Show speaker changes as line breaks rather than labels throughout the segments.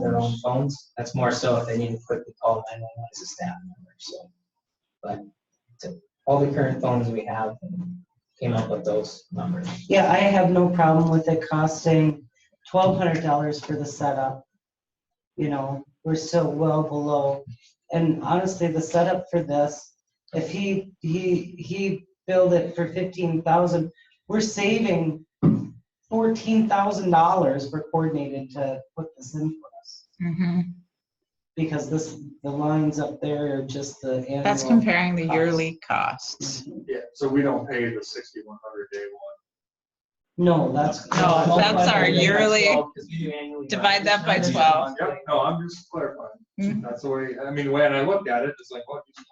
their own phones. That's more so if they need to quickly call 911 as a staff member, so. But to- all the current phones we have and came up with those numbers.
Yeah, I have no problem with it costing twelve hundred dollars for the setup. You know, we're still well below, and honestly, the setup for this, if he, he, he billed it for fifteen thousand, we're saving fourteen thousand dollars for coordinated to put this in for us,
Mhm.
because this, the lines up there are just the
That's
annual.
comparing the
cost.
yearly costs.
Yeah, so we don't pay the sixty-one hundred day one.
No, that's.
No, that's our
Multiply that by
yearly-
12, 'cause we do annually
divide
budget.
that by 12.
Yep, no, I'm just clarifying.
Mhm.
That's the way, I mean, when I looked at it, it's like, well, it's no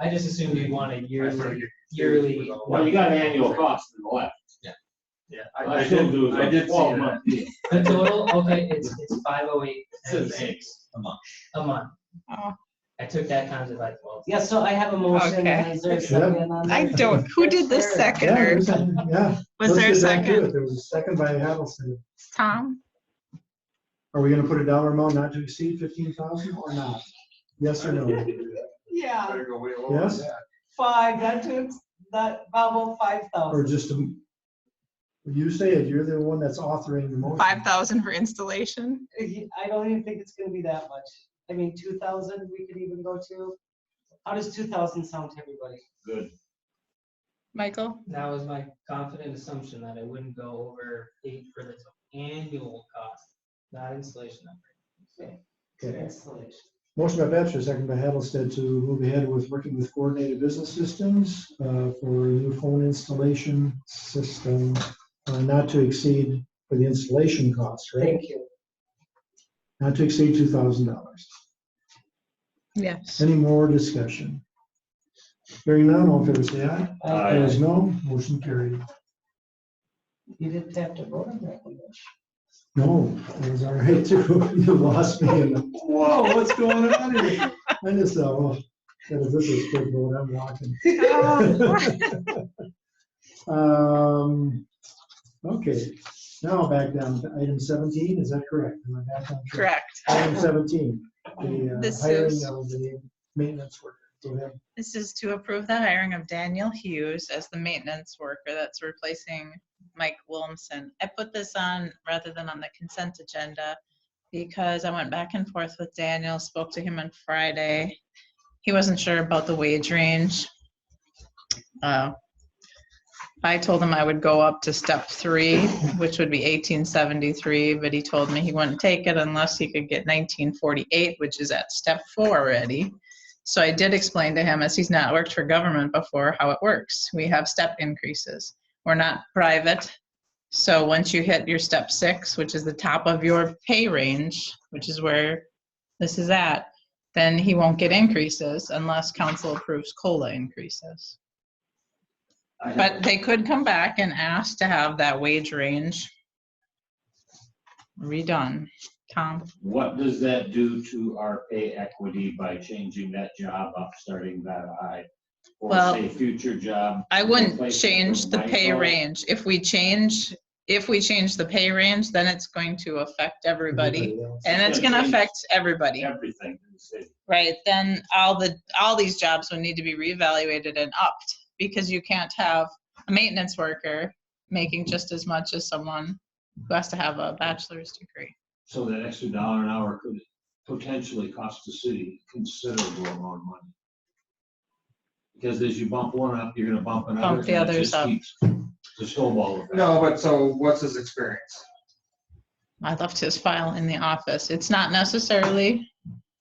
I just assumed you'd want a
brainer. I sort of
yearly,
get
yearly-
confused with all
Well, you
that.
got an annual cost in the left.
Yeah, I
I
I
still
did,
do. is
I
a
did see
12
that.
month deal.
the total, okay, it's, it's 508. A month.
Oh.
I took that times it by 12.
Yeah, so I have a motion,
Okay.
is there a second on
I
that?
don't, who did the
Sure.
second?
Yeah,
or
there's a- yeah.
Was there a
Let's get back to
second?
it. There was a second by Addison.
Tom?
Are we gonna put a dollar amount not to exceed fifteen thousand or not? Yes or no?
Yeah.
Better go way lower
Yes?
than that.
Five, that took, that, about five
Or
thousand.
just, a- you say it, you're the one that's authoring the motion.
Five thousand for installation?
I don't even think it's gonna be that much. I mean, two thousand, we could even go to. How does two thousand sound to everybody?
Good.
Michael?
That was my confident assumption that I wouldn't go over eight for the annual cost, not installation number.
Okay.
Installation.
Motion by Batchor, second by Hattlestead to move ahead with working with coordinated business systems uh, for a new phone installation system, uh, not to exceed for the installation costs, right?
Thank you.
Not to exceed two thousand dollars.
Yes.
Any more discussion? Hearing none, all in favor say aye.
Uh,
Opposed, no. Motion carried.
You didn't have to vote on that one.
No, it was all right too. You lost me in the, whoa, what's going on here? I just thought, well, if this is quick vote, I'm walking.
Ah,
Um, okay, now back down to item seventeen, is that correct? Am I back on track?
Correct.
Item seventeen, the uh,
This
hiring
is-
of the maintenance worker. Go ahead.
This is to approve the hiring of Daniel Hughes as the maintenance worker that's replacing Mike Williamson. I put this on rather than on the consent agenda because I went back and forth with Daniel, spoke to him on Friday. He wasn't sure about the wage range. Uh, I told him I would go up to step three, which would be eighteen seventy-three, but he told me he wouldn't take it unless he could get nineteen forty-eight, which is at step four already. So I did explain to him, as he's not worked for government before, how it works. We have step increases. We're not private. So once you hit your step six, which is the top of your pay range, which is where this is at, then he won't get increases unless council approves COLA increases.
I have
But they could come back and ask to have that wage range redone. Tom?
What does that do to our pay equity by changing that job up, starting that high? Or
Well-
say future job?
I wouldn't
replacement
change
with
the pay
Michael?
range. If we change, if we change the pay range, then it's going to affect everybody.
else?
And it's gonna
Everything.
affect everybody,
Everything. in the city.
right? Then all the, all these jobs would need to be reevaluated and upped because you can't have a maintenance worker making just as much as someone who has to have a bachelor's degree.
So that extra dollar an hour could potentially cost the city considerable amount of money. Because as you bump one up, you're gonna bump another.
Bump the
and it
others
just
up.
keeps The snowball effect.
No, but so what's his experience?
I left his file in the office. It's not necessarily,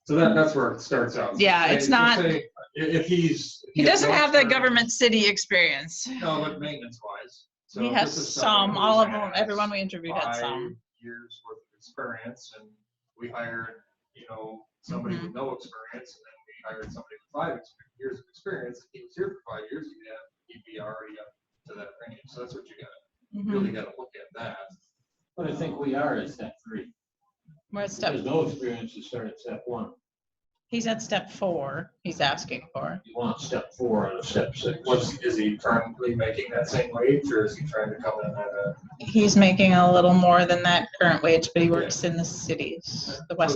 So that, that's where it starts out.
Yeah,
Say-
it's not-
say If, if he's.
he doesn't have
the
that government city experience.
No, but maintenance wise. So
He
this
has
is
some,
someone
all
who
of them,
has
everyone we interviewed had
Five
some.
years worth of experience and we hired, you know, somebody with
Mm-hmm.
no experience and then we hired somebody with five ex- years of experience. If he was here for five years, he'd have, he'd be already up to that range. So that's what you gotta,
Mm-hmm.
really gotta look at that.
But I think we are at step three.
We're at step,
There's no experience to start at step one.
he's at step four, he's asking for.
You want step four out of step six.
What's, is he currently making that same wage or is he trying to come in at a?
He's making a little more than that current wage, but he works in the cities, the western